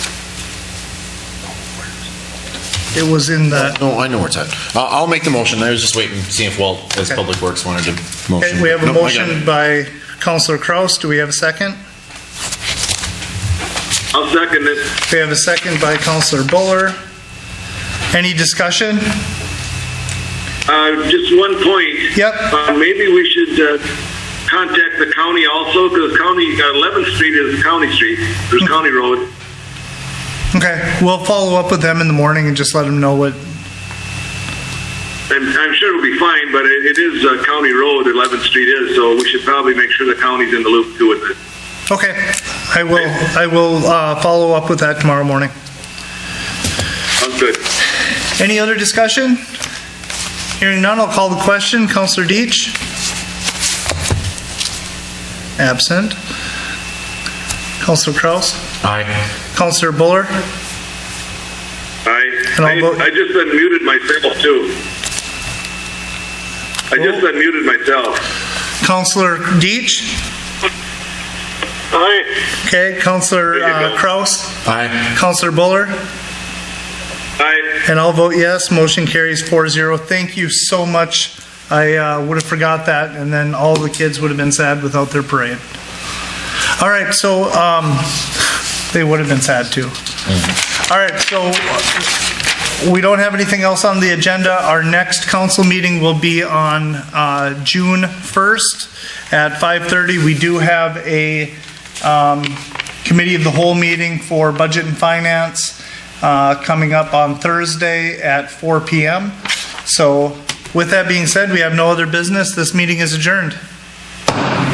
It was in the, No, I know where it's at. I'll, I'll make the motion. I was just waiting to see if Walt, as Okay. Public Works, wanted to motion. Okay, we have a Nope, I got motion it. by Counselor Kraus. Do we have a second? I'll second it. We have a second by Counselor Buller. Any discussion? Uh, Just one point. Yep. Uh, Maybe we should uh, contact the county also, because county, uh, 11th Street is a county street, there's Mm-hmm. county road. Okay, we'll follow up with them in the morning and just let them know what, I'm, I'm sure it'll be fine, but it it is a county road, 11th Street is, so we should probably make sure the county's in the loop too with it. okay, I will, I will uh, follow up with that tomorrow morning. Sounds good. Any other discussion? Hearing none, I'll call the question. Counselor Deitch? Absent. Counselor Kraus? Aye. Counselor Buller? I, And I'll I vote- I just unmuted myself too. I just unmuted myself. Counselor Deitch? Aye. Okay, Counselor uh, Kraus? Aye. Counselor Buller? Aye. And I'll vote yes. Motion carries 4-0. Thank you so much. I uh, would have forgot that, and then all the kids would have been sad without their parade. All right, so um, they would have been sad too. All right, so we don't have anything else on the agenda. Our next council meeting will be on uh, June 1st at 5:30. We do have a um, committee of the whole meeting for budget and finance uh, coming up on Thursday at 4 PM. So with that being said, we have no other business. This meeting is adjourned.